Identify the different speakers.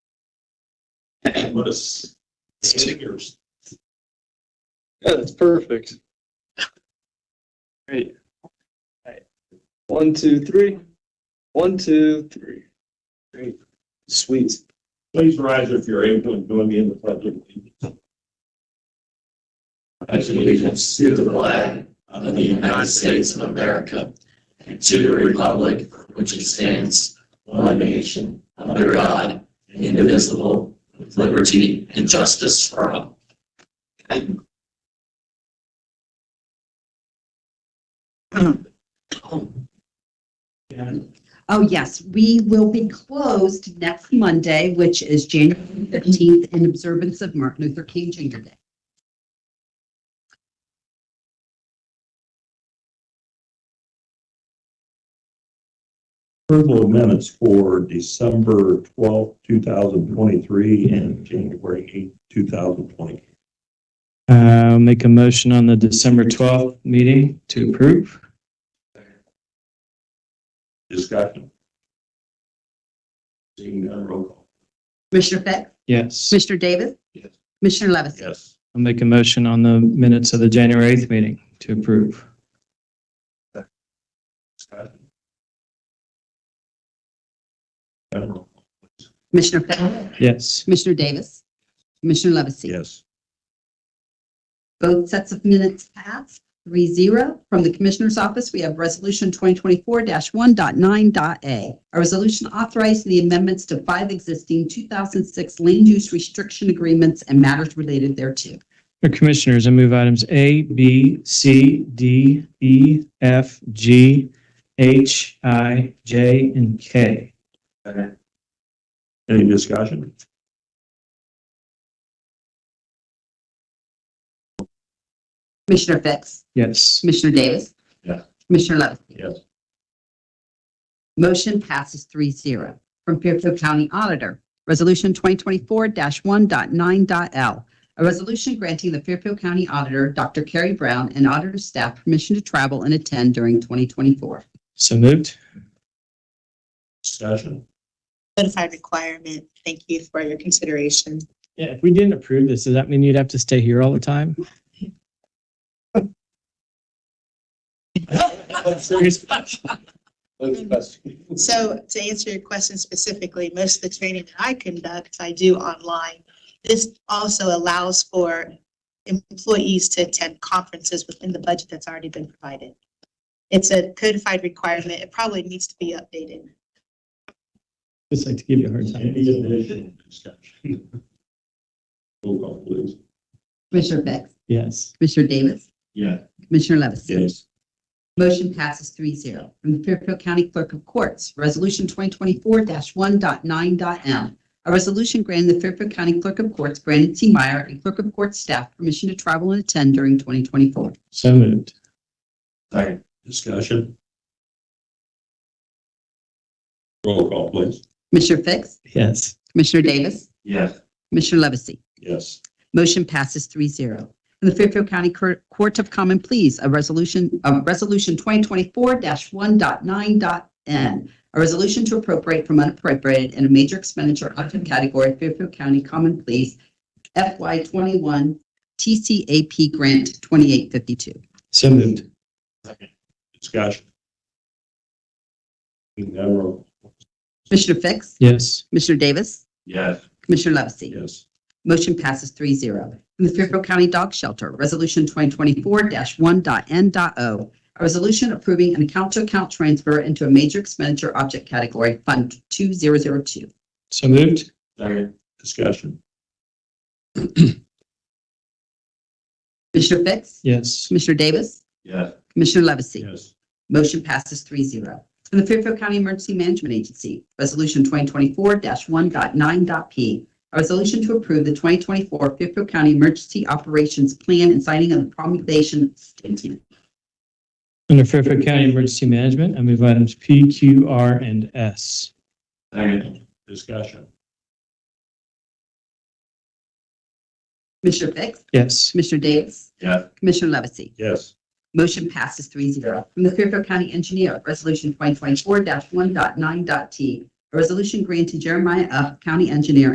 Speaker 1: What is? It's figures.
Speaker 2: Yeah, that's perfect. Great. One, two, three. One, two, three. Great. Sweet.
Speaker 1: Please rise if you're able and join me in the pledge of allegiance.
Speaker 3: pledge allegiance to the flag of the United States of America and to the republic for which it stands, one nation, under God, indivisible, with liberty and justice for all.
Speaker 4: Oh, yes, we will be closed next Monday, which is January 15th in observance of Martin Luther King Jr. Day.
Speaker 1: Approval of minutes for December twelfth, two thousand twenty-three and January eighth, two thousand twenty.
Speaker 5: Uh, I'll make a motion on the December 12th meeting to approve.
Speaker 1: Discussion. Seeing none, roll call.
Speaker 4: Commissioner Fix?
Speaker 5: Yes.
Speaker 4: Commissioner Davis?
Speaker 1: Yes.
Speaker 4: Commissioner Levesey?
Speaker 1: Yes.
Speaker 5: I'll make a motion on the minutes of the January 8th meeting to approve.
Speaker 1: Discussion. None, roll call, please.
Speaker 4: Commissioner Fix?
Speaker 5: Yes.
Speaker 4: Commissioner Davis? Commissioner Levesey?
Speaker 1: Yes.
Speaker 4: Both sets of minutes passed, three zero. From the Commissioner's Office, we have Resolution 2024-1.9.a. A resolution authorizing the amendments to five existing 2006 land use restriction agreements and matters related thereto.
Speaker 5: Your Commissioners, I move items A, B, C, D, E, F, G, H, I, J, and K.
Speaker 1: Any discussion?
Speaker 4: Commissioner Fix?
Speaker 5: Yes.
Speaker 4: Commissioner Davis?
Speaker 1: Yes.
Speaker 4: Commissioner Levesey?
Speaker 1: Yes.
Speaker 4: Motion passes 3-0 From Fairfield County Auditor, Resolution 2024-1.9.l. A resolution granting the Fairfield County Auditor, Dr. Carrie Brown, and auditor staff permission to travel and attend during 2024.
Speaker 5: So moved.
Speaker 1: Discussion.
Speaker 6: notified requirement. Thank you for your consideration.
Speaker 5: Yeah, if we didn't approve this, does that mean you'd have to stay here all the time? Serious?
Speaker 6: So to answer your question specifically, most of the training that I conduct, I do online. This also allows for employees to attend conferences within the budget that's already been provided. It's a codified requirement. It probably needs to be updated.
Speaker 5: Just like to give you a hard time.
Speaker 1: Any additional discussion? Roll call, please.
Speaker 4: Commissioner Fix?
Speaker 5: Yes.
Speaker 4: Commissioner Davis?
Speaker 1: Yeah.
Speaker 4: Commissioner Levesey?
Speaker 1: Yes.
Speaker 4: Motion passes 3-0 From the Fairfield County Clerk of Courts, Resolution 2024-1.9.m. A resolution granting the Fairfield County Clerk of Courts, Brandon T. Meyer, and Clerk of Courts staff permission to travel and attend during 2024.
Speaker 5: So moved.
Speaker 1: Second. Discussion. Roll call, please.
Speaker 4: Commissioner Fix?
Speaker 5: Yes.
Speaker 4: Commissioner Davis?
Speaker 1: Yes.
Speaker 4: Commissioner Levesey?
Speaker 1: Yes.
Speaker 4: Motion passes 3-0 From the Fairfield County Cour- Court of Common Pleas, a resolution, uh, Resolution 2024-1.9.n. A resolution to appropriate from unappropriated in a major expenditure up to category Fairfield County Common Pleas FY twenty-one TCAP Grant twenty-eight fifty-two.
Speaker 5: So moved.
Speaker 1: Discussion. Seeing none, roll call.
Speaker 4: Commissioner Fix?
Speaker 5: Yes.
Speaker 4: Commissioner Davis?
Speaker 1: Yes.
Speaker 4: Commissioner Levesey?
Speaker 1: Yes.
Speaker 4: Motion passes 3-0 From the Fairfield County Dog Shelter, Resolution 2024-1.n.o. A resolution approving an account-to-account transfer into a major expenditure object category, Fund 2002.
Speaker 5: So moved.
Speaker 1: Second. Discussion.
Speaker 4: Commissioner Fix?
Speaker 5: Yes.
Speaker 4: Commissioner Davis?
Speaker 1: Yes.
Speaker 4: Commissioner Levesey?
Speaker 1: Yes.
Speaker 4: Motion passes 3-0 From the Fairfield County Emergency Management Agency, Resolution 2024-1.9.p. A resolution to approve the 2024 Fairfield County Emergency Operations Plan and signing of the promulgation statement.
Speaker 5: Under Fairfield County Emergency Management, I move items P, Q, R, and S.
Speaker 1: Second. Discussion.
Speaker 4: Commissioner Fix?
Speaker 5: Yes.
Speaker 4: Commissioner Davis?
Speaker 1: Yes.
Speaker 4: Commissioner Levesey?
Speaker 1: Yes.
Speaker 4: Motion passes 3-0 From the Fairfield County Engineer, Resolution 2024-1.9.t. A resolution granting Jeremiah F. County Engineer